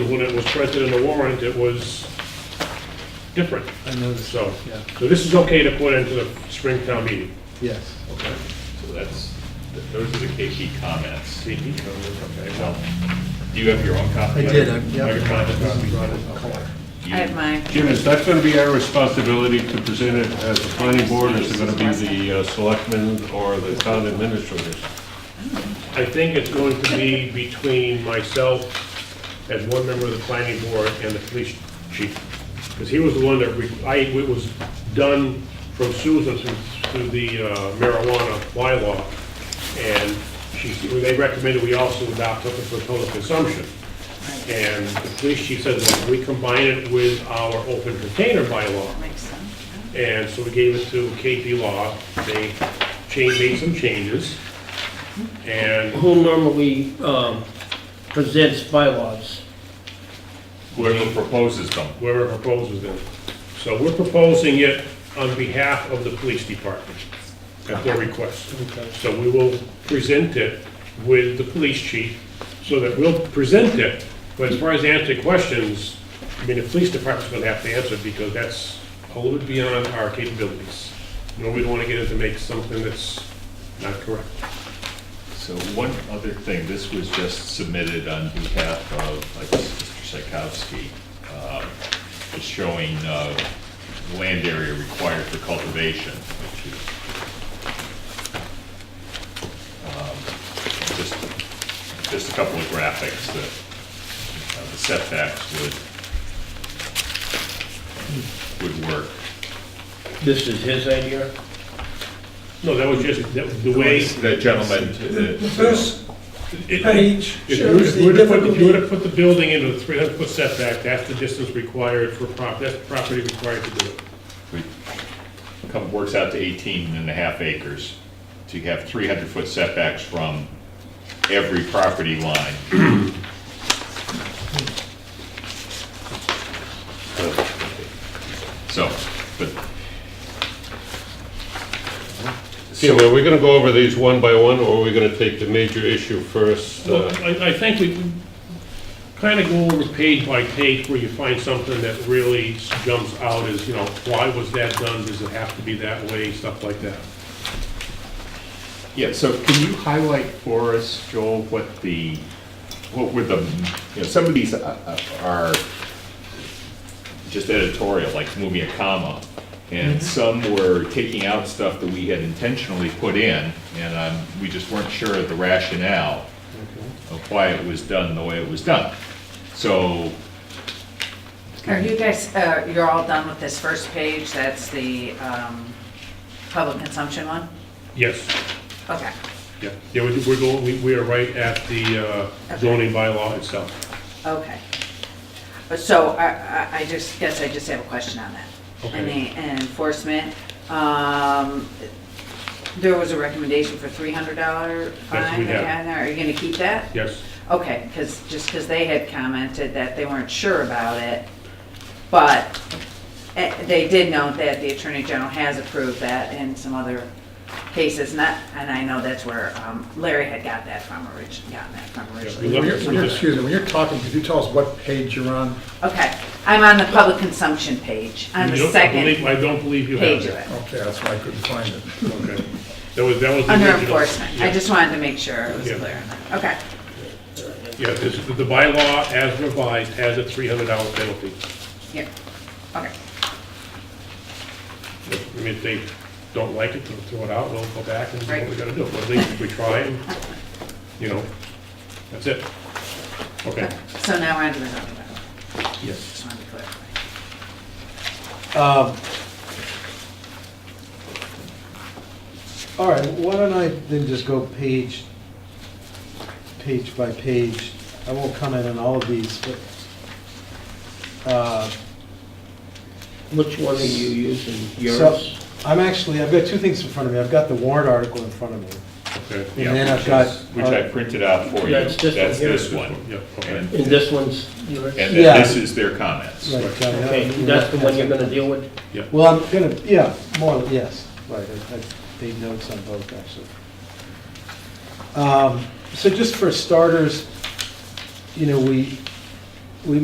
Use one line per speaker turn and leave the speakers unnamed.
when it was printed in the warrant, it was different.
I noticed,
So,
yeah,
so this is okay to put into the spring town meeting.
yes.
Okay. So that's, th- those are the KP comments.
See, he comes in,
Okay,
okay.
well, do you have your own copy?
I did, I- yeah.
Your comment copy?
I have mine.
Jim, is that going to be our responsibility to present it as the planning board, or is it going to be the uh, selectmen or the town administrators?
I think it's going to be between myself as one member of the planning board and the police chief. Because he was the one that, re- I, it was done from Susan through, through the uh, marijuana bylaw. And she, they recommended we also adopt something for total consumption. And the police chief said, "Well, we combine it with our open container bylaw.
Makes sense.
And so we gave it to KP Law. They changed, made some changes. And
Who normally um, presents bylaws?
Whoever proposes them.
whoever proposes them. So we're proposing it on behalf of the police department at their request. So we will present it with the police chief, so that we'll present it. But as far as answering questions, I mean, the police department's gonna have to answer, because that's a little bit beyond our capabilities. You know, we don't wanna get into make something that's not correct.
So one other thing, this was just submitted on behalf of, I guess, Mr. Psychowski. um, It's showing uh, land area required for cultivation, which is um, just, just a couple of graphics that uh, the setbacks would, would work.
This is his idea?
No, that was just, that was the way.
The gentleman,
The
the-
first
it-
page
If you were
shows
if you were to
the
put, if you were
difficulty.
to put the building into a three hundred foot setback, that's the distance required for prop, that's the property required to do it.
we- come, works out to 18 and a half acres. So you have 300-foot setbacks from every property line. So, but,
Jim, are we going to go over these one by one, or are we going to take the major issue first?
Well,
uh,
I, I think we kind of go over page by page where you find something that really jumps out as, you know, why was that done? Does it have to be that way? Stuff like that.
yeah, so can you highlight for us, Joel, what the, what were the, you know, some of these uh, uh, are just editorial, like moving a comma. And some were taking out stuff that we had intentionally put in, and um, we just weren't sure of the rationale of why it was done the way it was done. So,
Are you guys, uh, you're all done with this first page? That's the um, public consumption one?
Yes,
Okay.
yeah. Yeah, we- we're going, we, we are right at the uh, zoning bylaw itself.
Okay. But So I, I- I just, guess I just have a question on that. And the enforcement, um, there was a recommendation for three hundred dollar
That's what
fine.
we have.
again. Are you gonna keep that?
Yes.
Okay, because, just because they had commented that they weren't sure about it, but eh, they did note that the Attorney General has approved that in some other cases, not, and I know that's where um, Larry had got that from originally, gotten that from
we
originally.
left
When you're, when you're- excuse me, when you're talking, could you tell us what page you're on?
Okay, I'm on the public consumption page, on
You
the
don't- I believe-
second
I don't believe you have
page of
that.
it,
Okay, that's why I couldn't find it.
Okay. That was, that was. the
under
original.
enforcement. I
Yeah.
just wanted to make sure it was
Yeah.
clear on that. Okay,
Yeah, this, the bylaw as revised has a three hundred dollar penalty.
yeah, okay.
I mean, if they don't like it, they'll throw it out, we'll go back and do what
Right.
we gotta do. But at least if we try and, you know, that's it. Okay.
So now we're on to the zoning bylaw,
Yes.
just wanted to clarify.
Um, All right, why don't I then just go page, page by page? I won't comment on all of these, but, uh,
Which one are you using?
so,
Yours?
I'm actually, I've got two things in front of me. I've got the warrant article in front of me.
Okay.
And
yeah,
then I've
which
got,
is- Which I
uh,
printed out for you.
Yeah, it's this one
That's
here.
this one.
Yeah, okay.
And
And this one's yours?
and
Yeah.
then this is their comments.
Right, uh, John, yeah.
Okay, that's the one you're gonna deal with?
Well, I'm gonna, yeah, more, yes, right, I, I made notes on both, actually. Um, So just for starters, you know, we,